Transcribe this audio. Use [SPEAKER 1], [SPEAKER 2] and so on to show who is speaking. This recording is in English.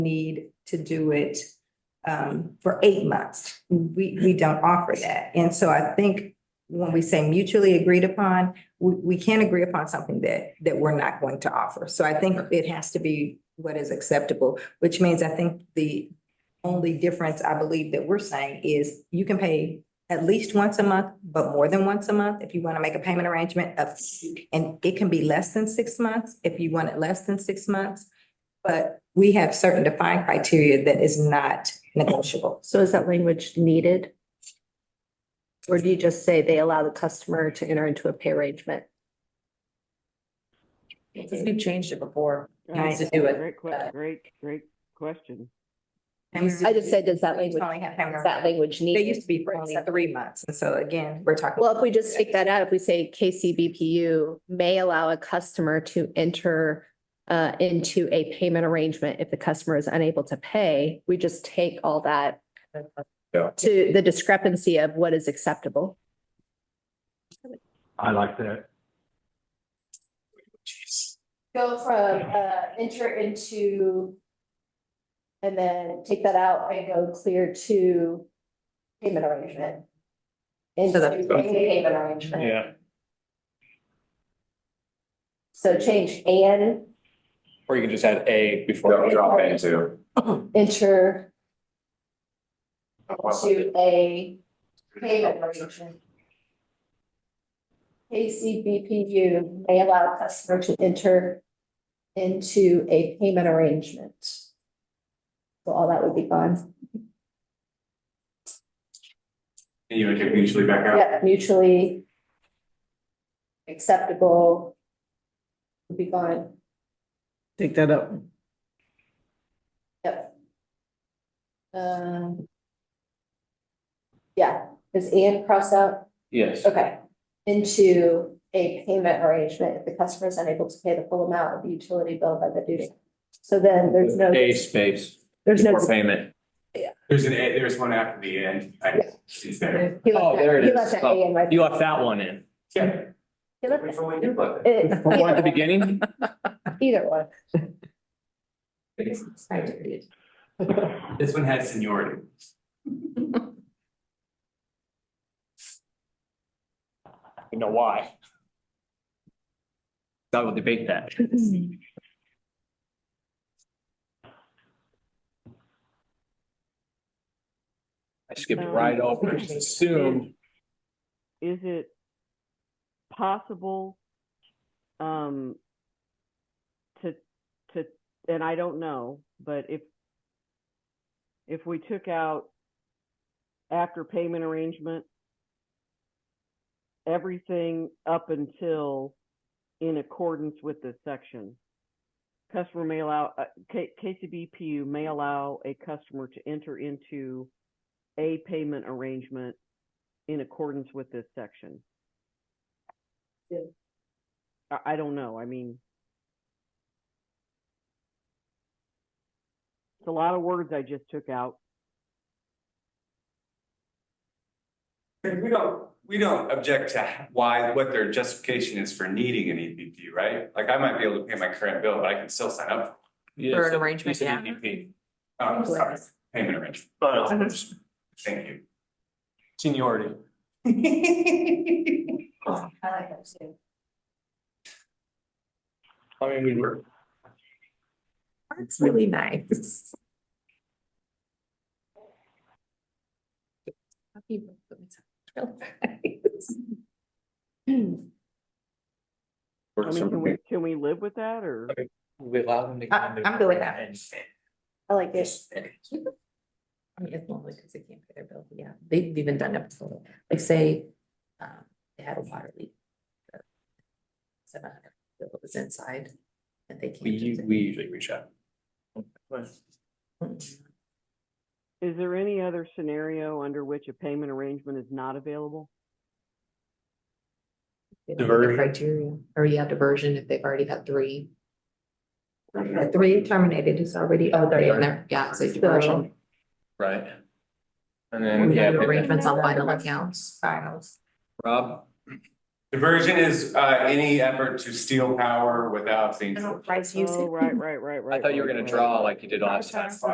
[SPEAKER 1] need to do it um, for eight months. We, we don't offer that. And so I think when we say mutually agreed upon, we, we can't agree upon something that, that we're not going to offer. So I think it has to be what is acceptable, which means I think the only difference I believe that we're saying is you can pay at least once a month, but more than once a month if you want to make a payment arrangement of, and it can be less than six months if you want it less than six months. But we have certain defined criteria that is not negotiable.
[SPEAKER 2] So is that language needed? Or do you just say they allow the customer to enter into a pay arrangement?
[SPEAKER 3] Because we've changed it before.
[SPEAKER 1] Nice to
[SPEAKER 3] to do it.
[SPEAKER 4] Great, que- great, great question.
[SPEAKER 2] I just said, does that
[SPEAKER 1] We used to
[SPEAKER 2] language,
[SPEAKER 1] only have payment
[SPEAKER 2] is
[SPEAKER 1] arrangement.
[SPEAKER 2] that language
[SPEAKER 1] They used
[SPEAKER 2] needed?
[SPEAKER 1] to be for only three months. And so again, we're talking.
[SPEAKER 2] Well, if we just take that out, if we say KCBPU may allow a customer to enter uh, into a payment arrangement if the customer is unable to pay, we just take all that to the discrepancy of what is acceptable.
[SPEAKER 5] I like that.
[SPEAKER 2] Go from uh enter into. And then take that out and go clear to payment arrangement. Into
[SPEAKER 1] So that's-
[SPEAKER 2] a payment arrangement.
[SPEAKER 6] Yeah.
[SPEAKER 2] So change and
[SPEAKER 6] Or you can just add A
[SPEAKER 7] Don't
[SPEAKER 6] before.
[SPEAKER 7] drop into.
[SPEAKER 2] enter to a payment arrangement. KCBPU may allow a customer to enter into a payment arrangement. So all that would be gone.
[SPEAKER 7] And you would get mutually back out.
[SPEAKER 2] Yeah, mutually acceptable would be gone.
[SPEAKER 4] Take that up.
[SPEAKER 2] Yep. Um, Yeah, is and cross out?
[SPEAKER 6] Yes.
[SPEAKER 2] Okay. Into a payment arrangement if the customer is unable to pay the full amount of the utility bill by the due date. So then there's no,
[SPEAKER 6] A space
[SPEAKER 2] there's no.
[SPEAKER 6] before payment.
[SPEAKER 7] There's an, a- there's one after the end. I, she's there.
[SPEAKER 2] he left
[SPEAKER 6] Oh,
[SPEAKER 2] that-
[SPEAKER 6] there it
[SPEAKER 2] he
[SPEAKER 6] is.
[SPEAKER 2] left that A in right
[SPEAKER 6] You
[SPEAKER 2] there.
[SPEAKER 6] left that one in.
[SPEAKER 7] Yeah.
[SPEAKER 2] He left
[SPEAKER 7] Which
[SPEAKER 2] that-
[SPEAKER 7] one we do love it.
[SPEAKER 2] it-
[SPEAKER 6] One
[SPEAKER 2] either one-
[SPEAKER 6] at the beginning?
[SPEAKER 2] Either one.
[SPEAKER 7] This one has seniority.
[SPEAKER 6] You know why? I will debate that. I skipped right over, it, assumed.
[SPEAKER 4] Is it possible, um, to, to, and I don't know, but if, if we took out after payment arrangement, everything up until in accordance with this section. Customer may allow, uh, K- KCBPU may allow a customer to enter into a payment arrangement in accordance with this section.
[SPEAKER 2] Yeah.
[SPEAKER 4] I, I don't know, I mean. It's a lot of words I just took out.
[SPEAKER 7] We don't, we don't object to why, what their justification is for needing an EPP, right? Like I might be able to pay my current bill, but I can still sign up.
[SPEAKER 6] For
[SPEAKER 3] an arrangement, yeah.
[SPEAKER 6] E
[SPEAKER 7] EPP. Oh, I'm sorry, payment arrangement. Thank you.
[SPEAKER 6] Seniority.
[SPEAKER 2] I like that too.
[SPEAKER 6] I mean, we were.
[SPEAKER 3] It's really nice.
[SPEAKER 4] I mean, can we, can we live with that or?
[SPEAKER 6] We allow them to.
[SPEAKER 1] I- I'm good with that.
[SPEAKER 2] I like it.
[SPEAKER 3] I mean, it's normally because they can't pay their bill, but yeah, they've even done it before, like say, um, they had a water leak. Seven hundred bill was inside and they can't.
[SPEAKER 6] We,
[SPEAKER 3] just-
[SPEAKER 6] u- we usually reach out.
[SPEAKER 4] Is there any other scenario under which a payment arrangement is not available?
[SPEAKER 3] They don't meet the
[SPEAKER 6] Diversion.
[SPEAKER 3] Criteria, or yeah, diversion if they've already had three.
[SPEAKER 1] The Three terminated is already
[SPEAKER 3] Oh,
[SPEAKER 1] out
[SPEAKER 3] they're in there,
[SPEAKER 1] there.
[SPEAKER 3] yeah, so
[SPEAKER 1] So-
[SPEAKER 3] diversion,
[SPEAKER 6] Right. And
[SPEAKER 3] We have
[SPEAKER 6] then, yeah,
[SPEAKER 3] arrangements on vital accounts.
[SPEAKER 1] Finals.
[SPEAKER 6] Rob,
[SPEAKER 7] Diversion is, uh, any effort to steal power without being.
[SPEAKER 4] Oh, right, right, right, right.
[SPEAKER 6] I thought you were
[SPEAKER 4] right,
[SPEAKER 6] gonna
[SPEAKER 4] right.
[SPEAKER 6] draw Oh, like you did last time.